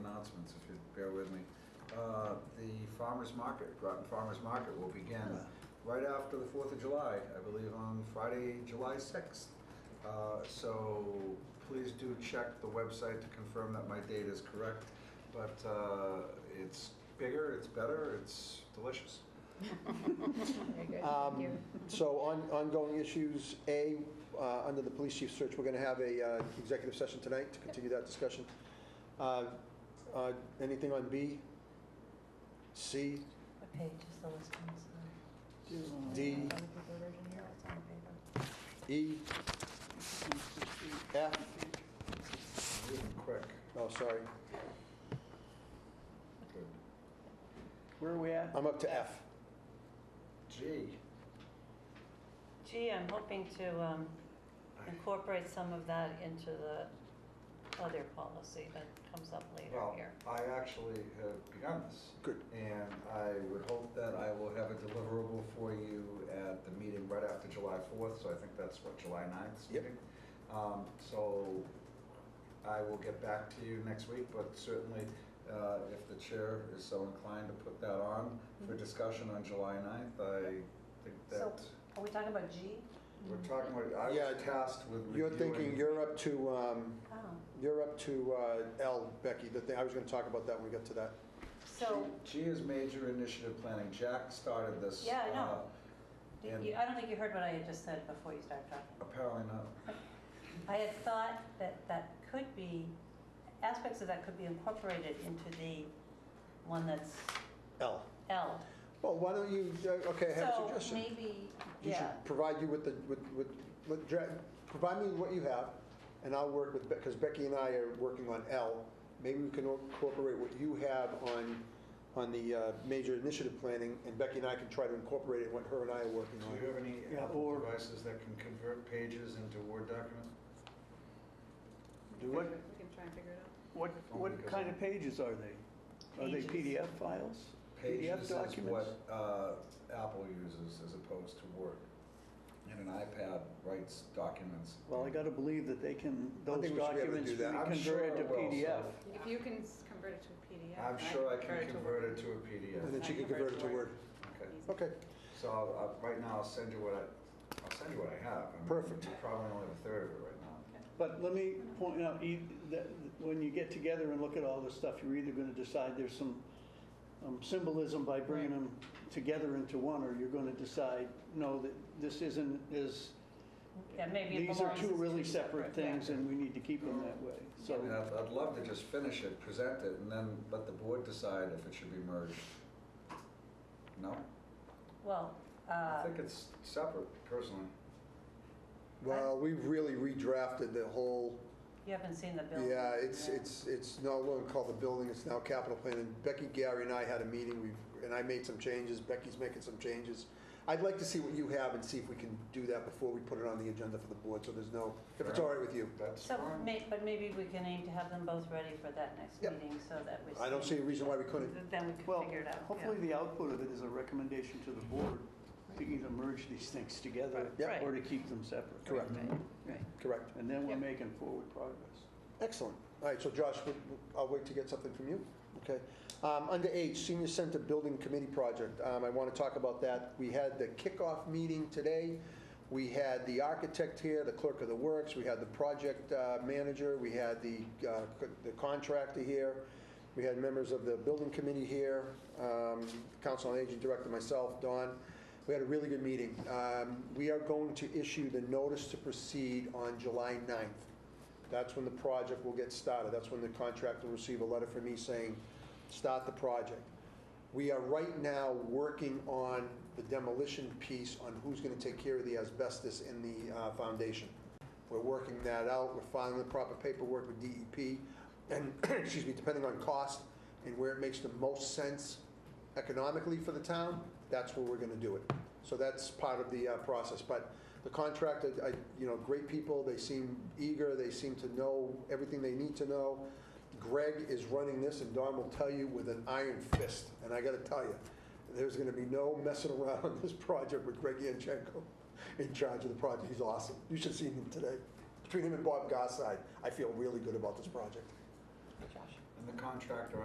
with me. Uh, The farmer's market, Groton Farmer's Market will begin right after the 4th of July, I believe on Friday, July 6th. Uh, So please do check the website to confirm that my date is correct. But uh, it's bigger, it's better, it's delicious. Very good, Um, thank you. So on ongoing issues, A, uh, under the police chief search, we're going to have a uh, executive session tonight to continue that discussion. Uh, uh, Anything on B? C? What page is the list on? Sorry. D? Other people version here, it's on paper. E? F? Moving quick. Oh, sorry, Good. Where are we at? I'm up to F. Gee, Gee, I'm hoping to um, incorporate some of that into the other policy that comes up later well, here. I actually have begun this. Good. And I would hope that I will have a deliverable for you at the meeting right after July 4th, so I think that's what, July 9th? Yep. meeting? Um, So I will get back to you next week, but certainly uh, if the chair is so inclined to put that on for discussion on July 9th, I think Mm-hmm. So mm-hmm. that are we talking about G? we're talking, about- I Yeah, was tasked with You're thinking, reviewing- you're up to, um, Oh, you're up to uh, L, Becky, the thing, I was going to talk about that when we get to that. so G is major initiative planning. Jack started this. Yeah, I know. uh, did and- you- I don't think you heard what I had just said before you started talking. Apparently not. I had thought that that could be, aspects of that could be incorporated into the one that's L. L. Well, why don't you, uh, okay, I have a suggestion. So maybe, He yeah. should provide you with the, with, with, with dra- provide me with what you have, and I'll work with, because Becky and I are working on L. Maybe we can incorporate what you have on, on the uh, major initiative planning, and Becky and I can try to incorporate it, what her and I are working Do you on. have any Yeah, Apple or- devices that can convert pages into Word documents? What, We can try and figure it out. what, Oh, what kind of pages are they? Are they Pages. PDF files? PDF Pages is documents? what uh, Apple uses as opposed to Word. And an iPad writes documents. Well, I gotta believe that they can, I those think we should be able to documents do be that. I'm sure converted to it will, PDF. so- If you can s- convert it to a PDF. I'm sure I can convert it to a And PDF. then she can convert it to Word. Okay, Easy. Okay, so I'll- I'll- right now I'll send you what I, I'll send you what I have. I mean, Perfect. you Probably only have a third of it right now. But let me point out, e- that when you get together and look at all this stuff, you're either gonna decide there's some um, symbolism by bringing them together into one, or you're gonna decide, no, that this isn't, is, Yeah, maybe it these are belongs two as really two separate separate, things, and we need to keep them that way, I mean, so. I'd, I'd love to just finish it, present it, and then let the board decide if it should be merged. No? Well, I uh, think it's separate personally. well, we've really redrafted the whole, you haven't seen the building. yeah, it's, it's, it's no longer called the building, it's now capital plan. And Becky, Gary and I had a meeting, we've, and I made some changes, Becky's making some changes. I'd like to see what you have and see if we can do that before we put it on the agenda for the board, so there's no, if it's all right with you. That's So, fine. may- but maybe we can aim to have them both ready for that next Yep. meeting so that we. I don't see a reason why we couldn't. Then we can Well, figure it out. yeah. hopefully the output of it is a recommendation to the board to either merge these things together Yep. Right. uh, or to keep them separate. Correct, Right. correct. And then we're Yep. making forward progress. Excellent. All right, so Josh, we- we- I'll wait to get something from you. Okay. Um, Under H, Senior Center Building Committee Project, Um, I want to talk about that. We had the kickoff meeting today. We had the architect here, the clerk of the works, we had the project uh, manager, we had the uh, co- the contractor here, we had members of the building committee here, um, council on aging director, myself, Don. We had a really good meeting. Um, We are going to issue the notice to proceed on July 9th. That's when the project will get started. That's when the contractor will receive a letter from me saying, start the project. We are right now working on the demolition piece on who's going to take care of the asbestos in the uh, foundation. We're working that out. We're filing the proper paperwork with DEP. And, excuse me, depending on cost and where it makes the most sense economically for the town, that's where we're going to do it. So that's part of the uh, process. But the contractor, I- you know, great people, they seem eager, they seem to know everything they need to know. Greg is running this, and Don will tell you with an iron fist, and I got to tell you, there's going to be no messing around on this project with Greg Yanchenko in charge of the project. He's awesome. You should have seen him today. Between him and Bob Gosside, I feel really good about this project. And the contractor